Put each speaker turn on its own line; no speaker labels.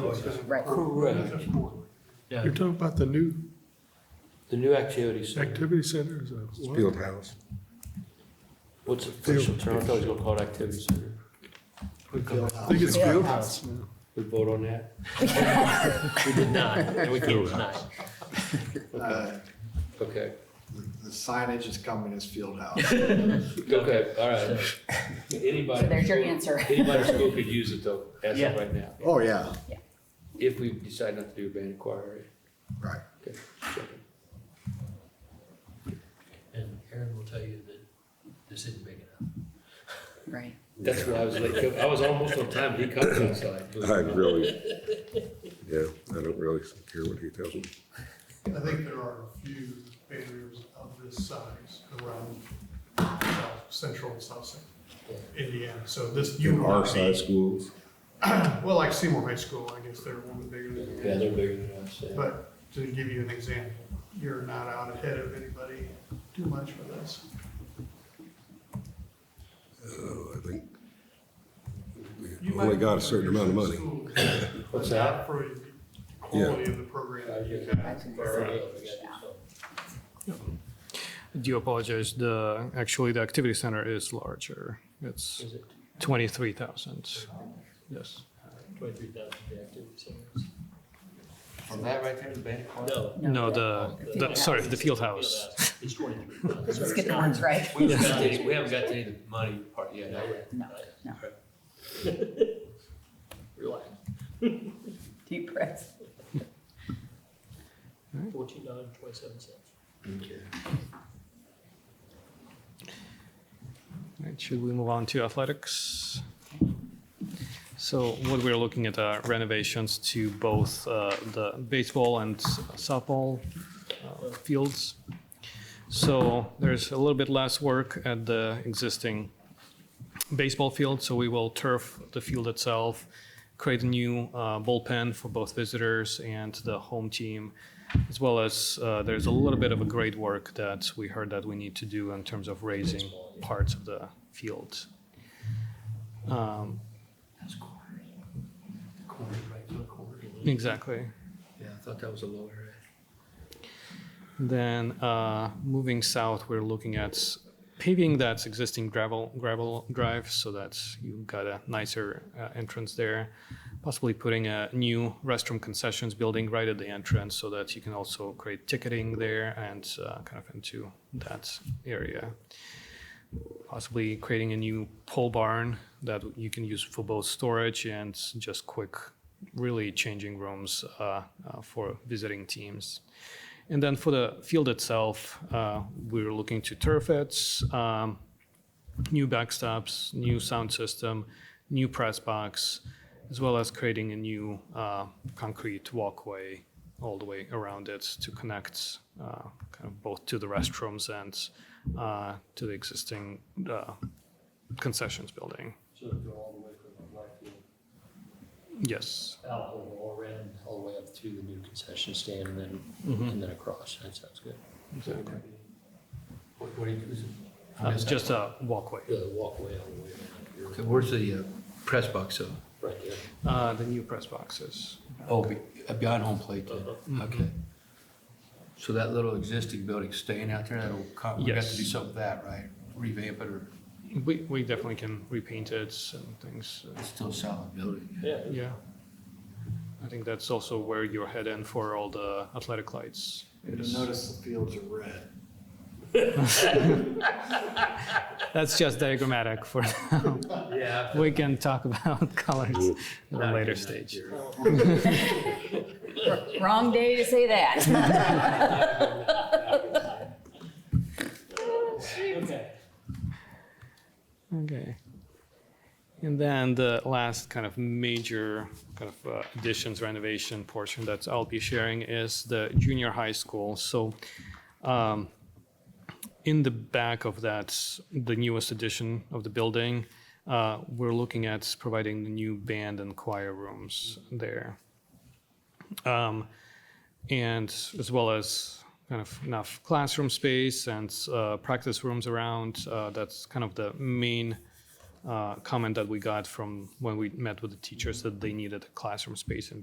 choice.
Right.
Correct. Yeah,
You're talking about the new
the new activities.
activity center is a what?
Field house.
What's the official term? I thought it was gonna call it activity center.
I think it's field house now.
We vote on that? We did not, and we can't deny. it.
Uh,
Okay,
The signage is coming as field house.
okay, all right. Anybody.
So there's your answer.
Anybody in school could use it though, as of right now,
Oh, yeah,
if we decide not to do a band inquiry.
right.
Okay. checking.
And Aaron will tell you that this isn't big enough.
Right.
That's what I was like, I was almost on time, he comes outside.
I really, yeah, I don't really care what he tells me.
I think there are a few barriers of this size around South central and south central Indiana. So this, you
In
will
our
not
side
be,
schools,
well, like Seymour High School, I guess they're a little bit bigger than
Yeah, they're bigger than us, yeah.
But to give you an example, you're not out ahead of anybody too much with this.
oh, I think we
You
only
might-
got a certain amount of money.
But
What's
not for the quality of the
Uh,
program
yeah.
you've got.
That's what I'm saying.
Do apologize, the, actually, the activity center is larger. It's
Is it
23,000, yes.
twenty-three thousand the activity centers?
From that right there, the band inquiry?
No.
No,
Uh,
the,
field
the- sorry,
house.
the field house.
It's twenty-three thousand.
Let's get the ones right.
We haven't got to any, we haven't got to any of the money part yet, have we?
No, no.
Relax.
Deep breath.
Fourteen dollars and twenty-seven cents.
Right, Should we move on to athletics? So what we're looking at are renovations to both uh, the baseball and softball uh, fields. So there's a little bit less work at the existing baseball field, so we will turf the field itself, create a new uh, bullpen for both visitors and the home team, as well as uh, there's a little bit of a grade work that we heard that we need to do in terms of raising parts of the field. Um,
That's corny. Corny, right, not corny.
Exactly.
Yeah, I thought that was a low area.
Then uh, moving south, we're looking at paving that's existing gravel gravel drive, so that you've got a nicer uh, entrance there. Possibly putting a new restroom concessions building right at the entrance, so that you can also create ticketing there and uh, kind of into that area. Possibly creating a new pole barn that you can use for both storage and just quick, really changing rooms uh, uh, for visiting teams. And then for the field itself, uh, we're looking to turf it, um, new backstops, new sound system, new press box, as well as creating a new uh, concrete walkway all the way around it to connect uh, kind of both to the restrooms and uh, to the existing uh, concessions building.
So it'll go all the way from the black field
Yes.
out over all around, all the way up to the new concession stand and then, and then across. That sounds good.
Exactly.
What, what do you, is it?
Uh, it's just a walkway.
The walkway all the way around
Okay,
here.
where's the uh, press box though?
Right there.
Uh, the new press boxes.
Oh, be- uh, behind home plate then,
Uh-huh. Mm-hmm.
okay. So that little existing building staying out there, that'll, co- we have to do
Yes.
something with that, right? Revamp it or
We, we definitely can repaint it and things. uh,
it's still a solid building?
Yeah.
Yeah. I think that's also where you're heading for all the athletic lights.
And you notice the fields are red.
That's just diagrammatic for now.
Yeah.
We can talk about colors at a later stage.
Wrong day to say that.
Okay.
Okay. And then the last kind of major kind of uh, additions renovation portion that I'll be sharing is the junior high school. So um, in the back of that, the newest addition of the building, uh, we're looking at providing the new band and choir rooms there. Um, and as well as kind of enough classroom space and uh, practice rooms around. Uh, that's kind of the main uh, comment that we got from when we met with the teachers that they needed a classroom space in